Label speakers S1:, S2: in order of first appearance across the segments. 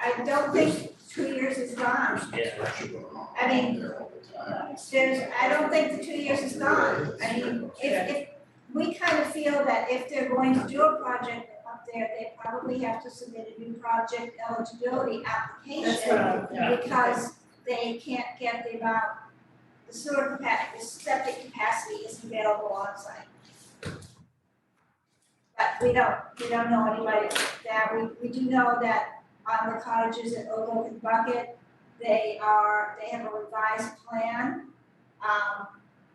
S1: I don't think two years is gone.
S2: Yeah.
S1: I mean, there's, I don't think the two years is gone. I mean, if, if, we kind of feel that if they're going to do a project up there, they probably have to submit a new project eligibility
S3: That's
S1: application.
S3: what I, yeah.
S1: Because they can't get the amount, the sewer capacity, the septic capacity is available on site. But we don't, we don't know anybody that, we, we do know that on the cottages at Oak and Bucket, they are, they have a revised plan, um,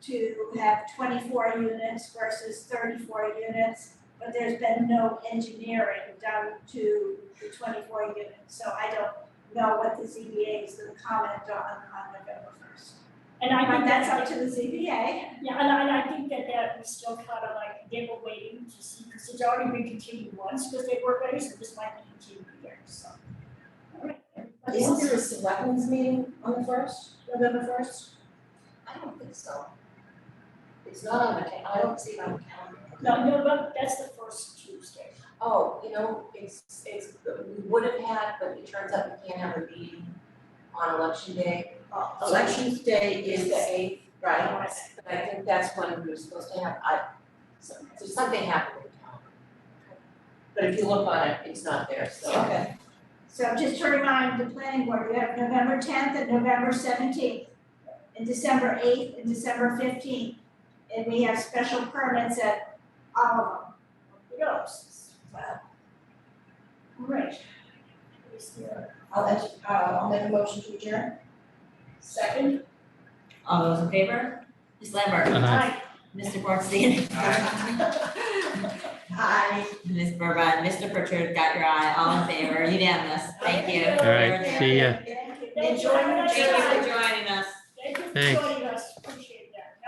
S1: to have twenty-four units versus thirty-four units, but there's been no engineering done to the twenty-four units, so I don't know what the ZBA is gonna comment on on November first.
S3: And I
S1: But
S3: think
S1: that's
S3: that's,
S1: up to the ZBA.
S3: yeah, and I, and I think that that was still kind of like, they were waiting to see, because it's already been continued once, because they were ready, so this might be continued again, so.
S4: Isn't there a selectmen's meeting on the first, November first?
S5: I don't think so. It's not on the, ca- I don't see it on the calendar.
S3: No, no, but that's the first Tuesday.
S5: Oh, you know, it's, it's, we would have had, but it turns out we can't have a meeting on election day.
S4: Elections Day
S5: Is
S4: is
S5: the
S4: the,
S5: eighth, Oh, right?
S4: right,
S5: But I think that's when we were supposed to have, I, so, so something happened with the calendar. But if you look on it, it's not there, so.
S4: okay,
S1: So just to remind the planning board, we have November tenth and November seventeenth, and December eighth and December fifteenth. And we have special permits at all of them.
S3: Who knows? Well. Great. Is there
S4: I'll let, you- uh, I'll make a motion to adjourn.
S3: a second?
S6: All those in favor? Ms. Lambert?
S3: Aye.
S6: Mr. Bornstein?
S4: Aye.
S6: Ms. Burbine? Mr. Pritchard, got your eye, all in favor, unanimous, thank you.
S3: All
S2: right, see ya.
S1: Thank you.
S3: Enjoy your
S6: Thank you
S3: journey.
S6: for joining us.
S3: Thank you for
S2: Thanks.
S3: joining